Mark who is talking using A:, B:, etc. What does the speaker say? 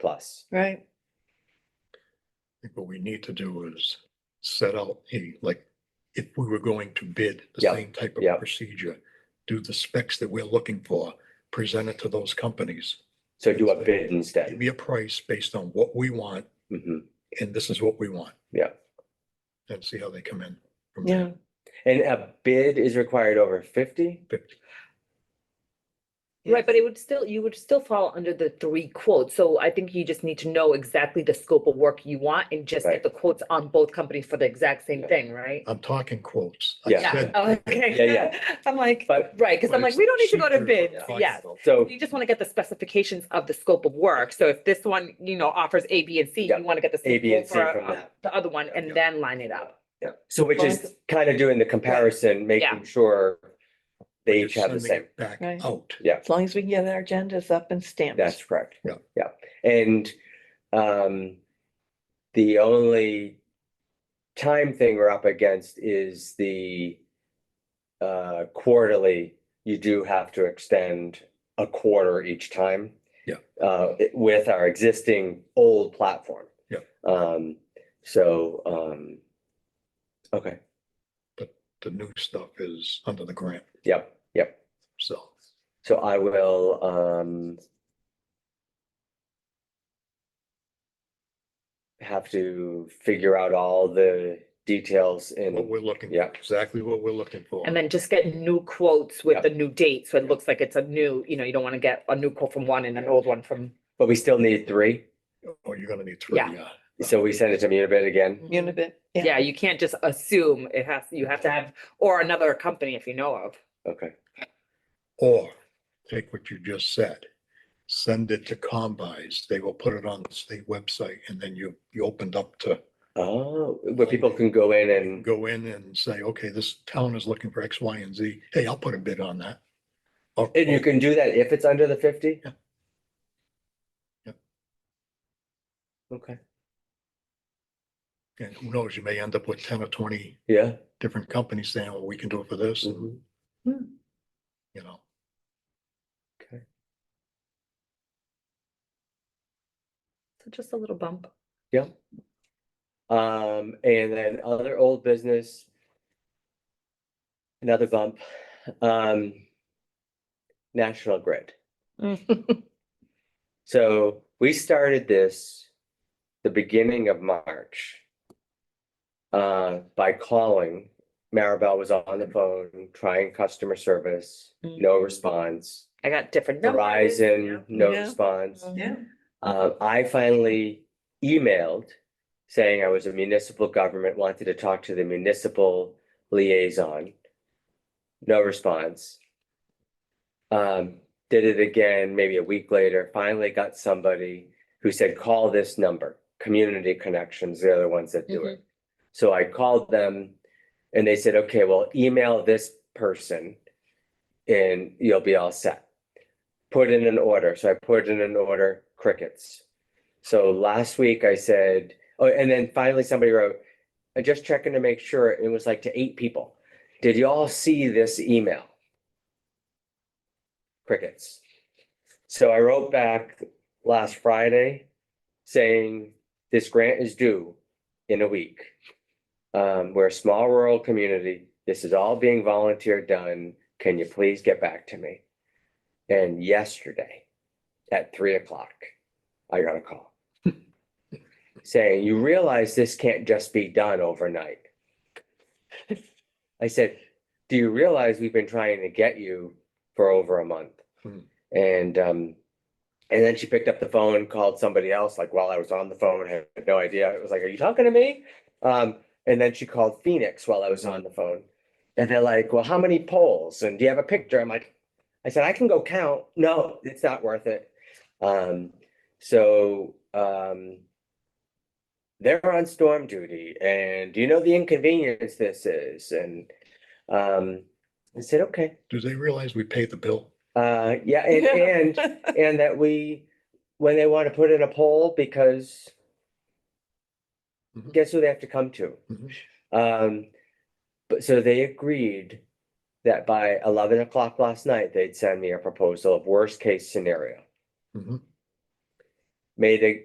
A: plus.
B: right?
C: think what we need to do is set out a, like, if we were going to bid the
A: Yeah,
C: same type
A: yeah.
C: of procedure, do the specs that we're looking for, present it to those companies.
A: So do a bid
C: Give
A: instead.
C: me a price based on what we want,
A: Mhm.
C: and this is what we want.
A: Yeah.
C: And see how they come in. from
B: Yeah,
A: And a bid is required over fifty?
C: Fifty.
D: Right, but it would still, you would still fall under the three quotes, so I think you just need to know exactly the scope of work you want and just
A: Right.
D: get the quotes on both companies for the exact same
A: Yeah.
D: thing, right?
C: I'm talking quotes. I
A: Yeah.
C: said-
D: Oh, Okay.
A: Yeah, yeah.
D: I'm like,
A: But,
D: right, because
C: but
D: I'm like,
C: it's
D: we don't need to go to
C: cheaper
D: bids,
C: find
D: yeah.
C: out.
A: so,
D: You just want to get the specifications of the scope of work, so if this one, you know, offers A, B, and C,
A: Yeah.
D: you want to get the.
A: A,
D: same
A: B, and C
D: quote for,
A: from
D: uh,
A: that.
D: The other one,
C: Yeah.
D: and then line it up.
A: yeah. so which is
B: Both.
A: kind of doing the comparison, making sure they each
C: Just
A: have the
C: sending
A: same.
C: it Back
B: Right.
C: out.
B: as long as we can get our agendas up and stamped.
A: That's correct.
C: Yeah.
A: Yeah, and um, the only time thing we're up against is the uh, quarterly, you do have to extend a quarter each time.
C: Yeah.
A: Uh, it- with our existing old platform.
C: Yeah.
A: Um, so, um, okay,
C: The new stuff is under the grant,
A: yep, yep.
C: so.
A: So I will, um. Have to figure out all the details
C: What
A: and,
C: we're looking,
A: Yeah.
C: for, exactly what we're looking for.
D: And then just get new quotes
A: Yeah.
D: with the new date, so it looks like it's a new, you know, you don't want to get a new quote from one and an old one from.
A: but we still need three,
C: Oh, you're gonna need three,
D: Yeah.
C: yeah.
A: so we send it to Munibid again.
B: Unibit, yeah,
D: Yeah, you can't just assume it has, you have to have, or another company if you know of.
C: Mm-hmm.
A: Okay,
C: Or take what you just said, send it to Combis, they will put it on the state website and then you, you opened up to
A: oh, where people can go in and,
C: go in and say, okay, this town is looking for X, Y, and Z. Hey, I'll put a bid on that. Or-
A: and you can do that if it's under the fifty?
C: Yeah. Yeah.
A: Okay,
C: And who knows, you may end up with ten or twenty
A: yeah.
C: different companies saying, oh, we can do it for this, and,
A: mhm.
C: you know.
D: So just a little bump.
A: Um, and then other old business. Another bump, um. National Grid.
B: Mm.
A: So we started this the beginning of March. Uh, by calling, Maribel was on the phone trying customer service, no response.
D: I got different numbers.
A: Verizon, no
B: Mm. Yeah.
A: response.
B: yeah,
A: Uh, I finally emailed saying I was a municipal government, wanted to talk to the municipal liaison. No response. Um, did it again, maybe a week later, finally got somebody who said, call this number, Community Connections, they're the ones that do it. So I called them and they said, okay, well, email this person and you'll be all set put in an order. So I put in an order crickets. So last week I said, oh, and then finally somebody wrote, I'm just checking to make sure it was like to eight people. Did y'all see this email? Crickets. So I wrote back last Friday saying this grant is due in a week. Um, we're a small rural community. This is all being volunteer done. Can you please get back to me? And yesterday at three o'clock, I got a call. Saying, you realize this can't just be done overnight. I said, do you realize we've been trying to get you for over a month?
C: Hmm.
A: And um, and then she picked up the phone, called somebody else, like while I was on the phone, I had no idea. It was like, are you talking to me? Um, and then she called Phoenix while I was on the phone. And they're like, well, how many polls? And do you have a picture? I'm like, I said, I can go count. No, it's not worth it. Um, so, um. They're on storm duty and do you know the inconvenience this is? And, um, I said, okay,
C: Do they realize we paid the bill?
A: uh, yeah, and, and, and that we, when they want to put in a poll because.
C: Mhm.
A: Guess who they have to come to?
C: Mhm.
A: Um, but so they agreed that by eleven o'clock
C: Mm-hmm.
A: last night, they'd send me a proposal of worst case scenario.
C: Mhm.
A: made a,